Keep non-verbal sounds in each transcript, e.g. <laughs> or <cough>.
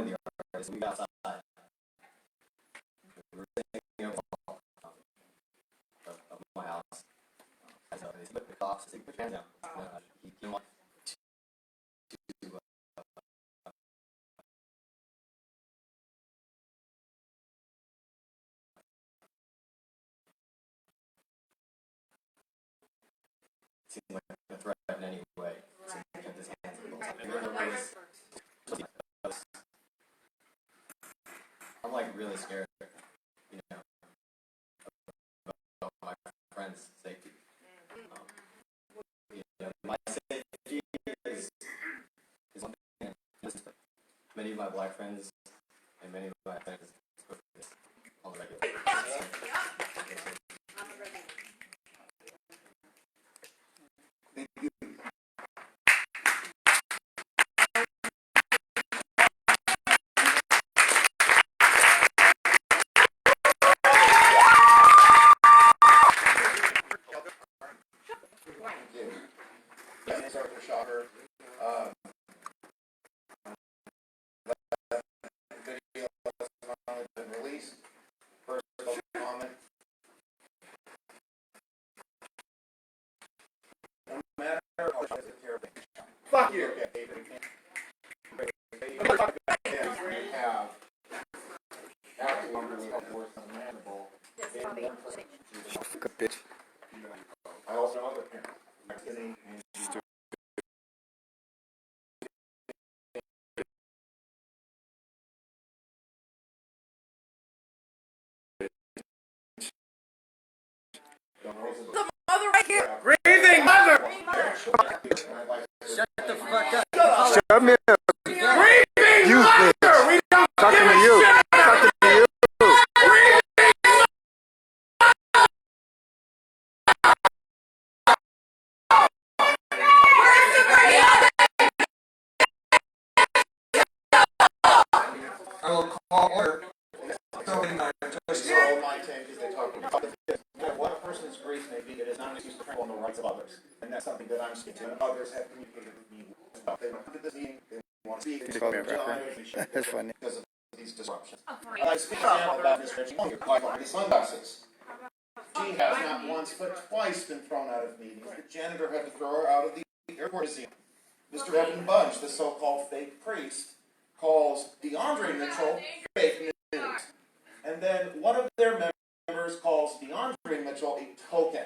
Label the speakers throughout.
Speaker 1: noise. We got outside. We were sitting up on the balcony um, of, of my house. And so they took the cops, they took the hands down. And, uh, he came on to, to, uh, seemed like a threat in any way. So he kept his hands up. Like, there was- I'm like really scared, you know, about my friend's safety. Um, you know, my safety is, is one thing, and just many of my black friends and many of my friends go through this on the regular.
Speaker 2: Thank you. My name is Arthur Shocker. Um, that Um, video has finally been released. First public comment. No matter how much I doesn't care about Fuck you. Okay, we can't- Yeah, we have absolutely worse than manageable. I also know other parents. I'm kidding. Don't raise a-
Speaker 3: mother right here.
Speaker 4: Breathing mother.
Speaker 5: Come here,
Speaker 4: Breathing
Speaker 5: You
Speaker 4: mother.
Speaker 5: bitch.
Speaker 4: We don't
Speaker 5: Talking
Speaker 4: give
Speaker 5: to
Speaker 4: a
Speaker 5: you.
Speaker 4: shit.
Speaker 5: Talking to you.
Speaker 2: I will call order. Somebody might just roll my tank as they talk about the fifth. No matter what a person's grief may be, it is not an excuse to trample on the rights of others. And that's something that I'm speaking to. Others have communicated with me. about. They want to come to this meeting, they want to speak. They
Speaker 5: call me a
Speaker 2: want to
Speaker 5: rapper.
Speaker 2: join.
Speaker 5: <laughs> That's funny.
Speaker 2: Because of these disruptions. Uh, I speak now about Miss Reggie Munger, my the sunglasses. She has not once but twice been thrown out of meetings. The janitor had to throw her out of the airport museum. Mr. Evan Bunch, the so-called fake priest, calls DeAndre Mitchell fake news. And then one of their members calls DeAndre Mitchell a token.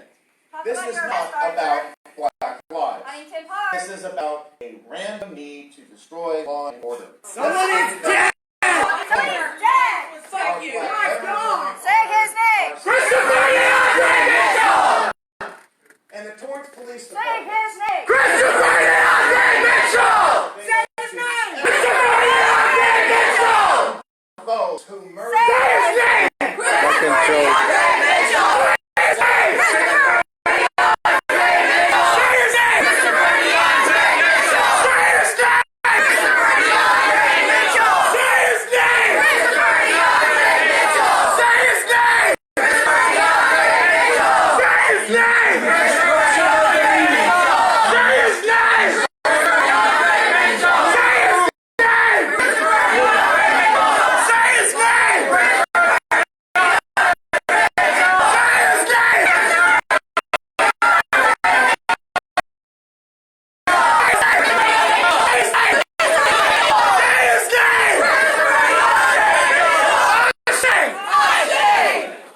Speaker 2: This is not about black lives.
Speaker 3: Huntington Park.
Speaker 2: This is about a random need to destroy law and order.
Speaker 4: Somebody's dead.
Speaker 3: Huntington Jack.
Speaker 2: Thank you. My God.
Speaker 3: Say his name.
Speaker 4: Christopher DeAndre Mitchell.
Speaker 2: And the Torrance Police
Speaker 3: Say
Speaker 2: Department.
Speaker 3: his name.
Speaker 4: Christopher DeAndre Mitchell.
Speaker 3: Say his name.
Speaker 4: Christopher DeAndre Mitchell.
Speaker 2: Those who murdered.
Speaker 4: His name.
Speaker 5: Fucking joke.
Speaker 4: His name. Christopher DeAndre Mitchell. Say his name. Christopher DeAndre Mitchell. Say his name. Christopher DeAndre Mitchell. Say his name. Christopher DeAndre Mitchell. Say his name. Christopher DeAndre Mitchell. Say his name. Christopher DeAndre Mitchell. Say his name. Christopher DeAndre Mitchell. Say his name. Christopher DeAndre Mitchell. Say his name. Say his name.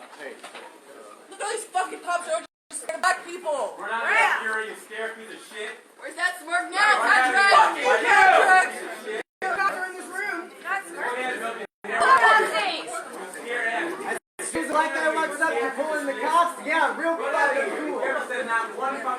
Speaker 6: Look at all these fucking cops are just scared of black people.
Speaker 7: We're not that fury to scare through the shit.
Speaker 6: Where's that smirk now?
Speaker 7: We're not
Speaker 6: Contract!
Speaker 7: fucking
Speaker 6: Contract!
Speaker 7: you. Don't have nothing
Speaker 6: Nazi!
Speaker 7: to scare at.
Speaker 8: She's like I was up for pulling the cops. Yeah, real fucking
Speaker 7: Ever said not one fucking